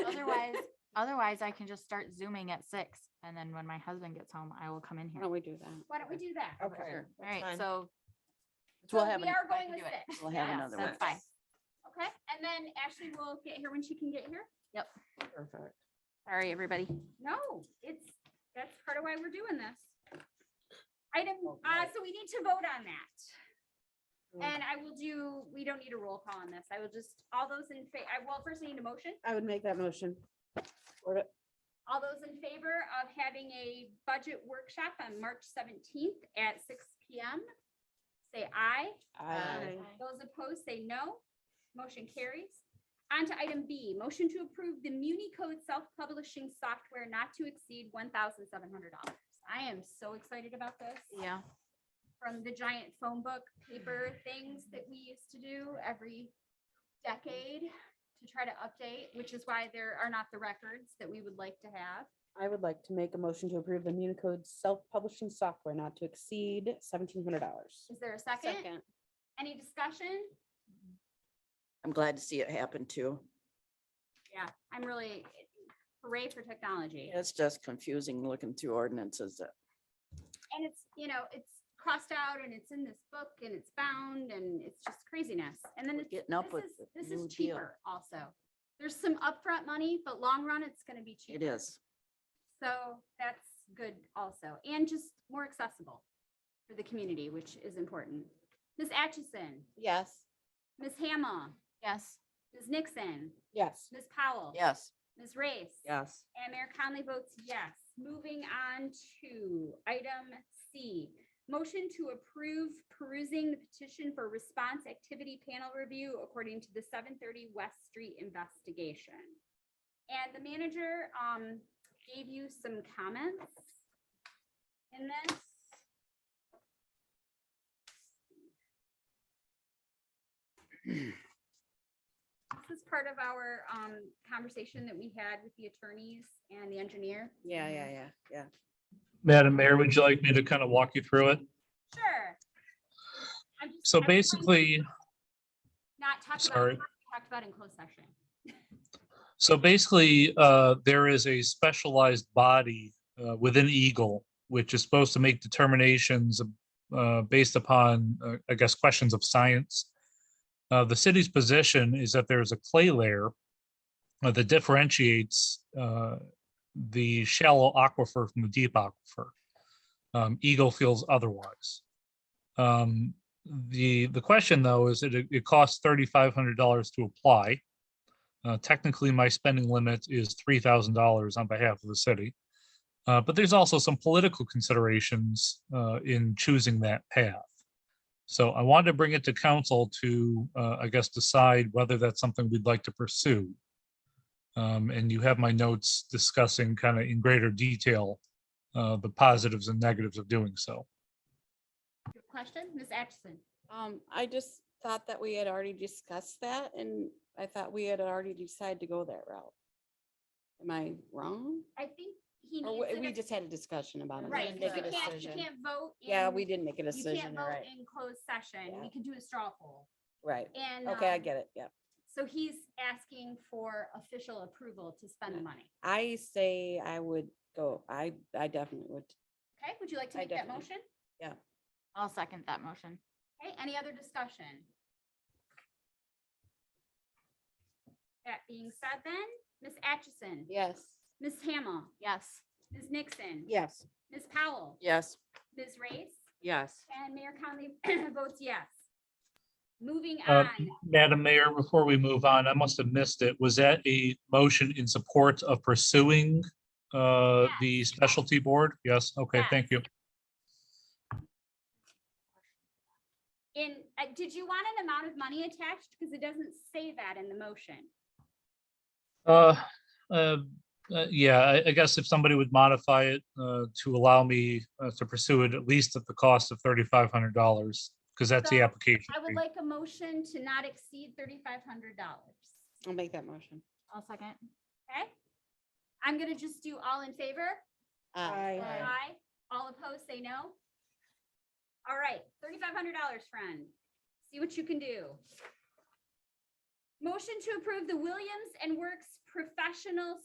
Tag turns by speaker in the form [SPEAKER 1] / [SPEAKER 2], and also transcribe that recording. [SPEAKER 1] Otherwise, I can just start zooming at six and then when my husband gets home, I will come in
[SPEAKER 2] Why
[SPEAKER 1] here.
[SPEAKER 2] don't
[SPEAKER 1] All
[SPEAKER 2] we do that?
[SPEAKER 3] Why don't we do that?
[SPEAKER 4] Okay.
[SPEAKER 2] Oh, Sure.
[SPEAKER 4] that's
[SPEAKER 1] right,
[SPEAKER 4] fine.
[SPEAKER 1] so
[SPEAKER 3] So
[SPEAKER 2] We'll have,
[SPEAKER 3] We
[SPEAKER 2] an-
[SPEAKER 3] are
[SPEAKER 1] I
[SPEAKER 3] going
[SPEAKER 1] can
[SPEAKER 3] with
[SPEAKER 1] do it.
[SPEAKER 3] six.
[SPEAKER 2] we'll have
[SPEAKER 1] yeah,
[SPEAKER 2] another one.
[SPEAKER 1] that's fine.
[SPEAKER 3] Okay, and then Ashley will get here when she can get here?
[SPEAKER 4] Perfect.
[SPEAKER 1] Sorry, everybody.
[SPEAKER 3] No, it's, that's part of why we're doing this. Item, uh,
[SPEAKER 4] Okay.
[SPEAKER 3] so we need to vote on that.
[SPEAKER 2] Mm.
[SPEAKER 3] And I will do, we don't need a roll call on this. I will just, all those in fa, I will first need a motion.
[SPEAKER 2] I would make that motion.
[SPEAKER 3] All those in favor of having a budget workshop on March seventeenth at six P M? Say aye.
[SPEAKER 1] Um,
[SPEAKER 4] Aye.
[SPEAKER 3] Those opposed say no. Motion carries. On to item B, motion to approve the Muni Code self-publishing software not to exceed one thousand seven hundred dollars. I am so excited about this.
[SPEAKER 1] Yeah,
[SPEAKER 3] From the giant phone book paper things that we used to do every decade to try to update, which is why there are not the records that we would like to have.
[SPEAKER 2] I would like to make a motion to approve the Municode self-publishing software not to exceed seventeen hundred dollars.
[SPEAKER 3] Is there a second? Any discussion?
[SPEAKER 5] I'm glad to see it happen too.
[SPEAKER 3] Yeah, I'm really hooray for technology.
[SPEAKER 5] It's just confusing looking through ordinances. that-
[SPEAKER 3] and it's, you know, it's crossed out and it's in this book and it's bound and it's just craziness. And then
[SPEAKER 5] We're
[SPEAKER 3] it's,
[SPEAKER 5] getting up
[SPEAKER 3] this
[SPEAKER 5] with
[SPEAKER 3] is,
[SPEAKER 5] the
[SPEAKER 3] this
[SPEAKER 5] new
[SPEAKER 3] is
[SPEAKER 5] deal.
[SPEAKER 3] cheaper also. There's some upfront money, but long run, it's gonna be
[SPEAKER 5] It
[SPEAKER 3] cheaper.
[SPEAKER 5] is.
[SPEAKER 3] So that's good also, and just more accessible for the community, which is important. Ms. Atchison,
[SPEAKER 2] Yes.
[SPEAKER 3] Ms. Hamel,
[SPEAKER 1] yes.
[SPEAKER 3] Ms. Nixon,
[SPEAKER 2] Yes.
[SPEAKER 3] Ms. Powell.
[SPEAKER 5] Yes.
[SPEAKER 3] Ms. Race.
[SPEAKER 4] Yes.
[SPEAKER 3] And Mayor Conley votes yes. Moving on to item C. Motion to approve perusing the petition for response activity panel review according to the seven thirty West Street investigation. And the manager um gave you some comments in this. This is part of our um conversation that we had with the attorneys and the engineer.
[SPEAKER 2] Yeah, yeah, yeah, yeah.
[SPEAKER 6] Madam Mayor, would you like me to kind of walk you through it?
[SPEAKER 3] Sure. I'm just-
[SPEAKER 6] So
[SPEAKER 3] I'm trying to
[SPEAKER 6] basically,
[SPEAKER 3] Not talk about,
[SPEAKER 6] sorry.
[SPEAKER 3] what we talked about in closed session.
[SPEAKER 6] so basically, uh, there is a specialized body uh, within Eagle, which is supposed to make determinations uh, based upon, uh, I guess, questions of science. Uh, The city's position is that there is a clay layer uh, that differentiates uh, the shallow aquifer from the deep aquifer. Um, Eagle feels otherwise. Um, The, the question, though, is that it it costs $3,500 to apply. Uh, technically, my spending limit is three thousand dollars on behalf of the city. Uh, but there's also some political considerations uh, in choosing that path. So I wanted to bring it to council to, uh, I guess, decide whether that's something we'd like to pursue. Um, and you have my notes discussing kind of in greater detail uh, the positives and negatives of doing so.
[SPEAKER 3] Your question, Ms. Atchison?
[SPEAKER 2] Um, I just thought that we had already discussed that and I thought we had already decided to go that route. Am I wrong?
[SPEAKER 3] I think he
[SPEAKER 2] Or
[SPEAKER 3] needs.
[SPEAKER 2] we-
[SPEAKER 3] an
[SPEAKER 2] we
[SPEAKER 3] ex-
[SPEAKER 2] just had a discussion about it. We
[SPEAKER 3] Right,
[SPEAKER 2] didn't
[SPEAKER 3] 'cause
[SPEAKER 2] Make
[SPEAKER 3] you
[SPEAKER 2] a
[SPEAKER 3] can't, you
[SPEAKER 2] decision.
[SPEAKER 3] can't vote.
[SPEAKER 2] Yeah,
[SPEAKER 3] in-
[SPEAKER 2] we didn't make a
[SPEAKER 3] You can't
[SPEAKER 2] decision, you're
[SPEAKER 3] vote
[SPEAKER 2] right,
[SPEAKER 3] in closed session. We
[SPEAKER 2] Yeah.
[SPEAKER 3] could do a straw poll.
[SPEAKER 2] right.
[SPEAKER 3] And.
[SPEAKER 2] Okay, I
[SPEAKER 3] um,
[SPEAKER 2] get it, yeah.
[SPEAKER 3] So he's asking for official approval to spend the money.
[SPEAKER 2] I say I would go, I, I definitely would.
[SPEAKER 3] Okay, would you like to
[SPEAKER 2] I
[SPEAKER 3] make that motion?
[SPEAKER 2] definitely-
[SPEAKER 1] I'll second that motion.
[SPEAKER 3] Okay, any other discussion? That being said then, Ms. Atchison?
[SPEAKER 2] Yes.
[SPEAKER 3] Ms. Hamel?
[SPEAKER 1] Yes.
[SPEAKER 3] Ms. Nixon?
[SPEAKER 2] Yes.
[SPEAKER 3] Ms. Powell?
[SPEAKER 5] Yes.
[SPEAKER 3] Ms. Race?
[SPEAKER 4] Yes.
[SPEAKER 3] And Mayor Conley votes yes. Moving
[SPEAKER 6] Uh,
[SPEAKER 3] on,
[SPEAKER 6] Madam Mayor, before we move on, I must have missed it. Was that a motion in support of pursuing uh, the specialty board? Yes, okay,
[SPEAKER 3] Yes.
[SPEAKER 6] thank you.
[SPEAKER 3] in, uh, did you want an amount of money attached? Because it doesn't say that in the motion.
[SPEAKER 6] Uh, uh, uh, yeah, I, I guess if somebody would modify it, uh, to allow me, uh, to pursue it at least at the cost of thirty-five hundred dollars, because that's the
[SPEAKER 3] So,
[SPEAKER 6] application.
[SPEAKER 3] I would
[SPEAKER 6] fee.
[SPEAKER 3] like a motion to not exceed thirty-five hundred dollars.
[SPEAKER 2] I'll make that motion.
[SPEAKER 1] I'll second.
[SPEAKER 3] Okay? I'm gonna just do all in favor?
[SPEAKER 2] Uh,
[SPEAKER 1] Aye.
[SPEAKER 3] Aye. All opposed, say no. All right, thirty-five hundred dollars, friend. See what you can do. Motion to approve the Williams and Works Professional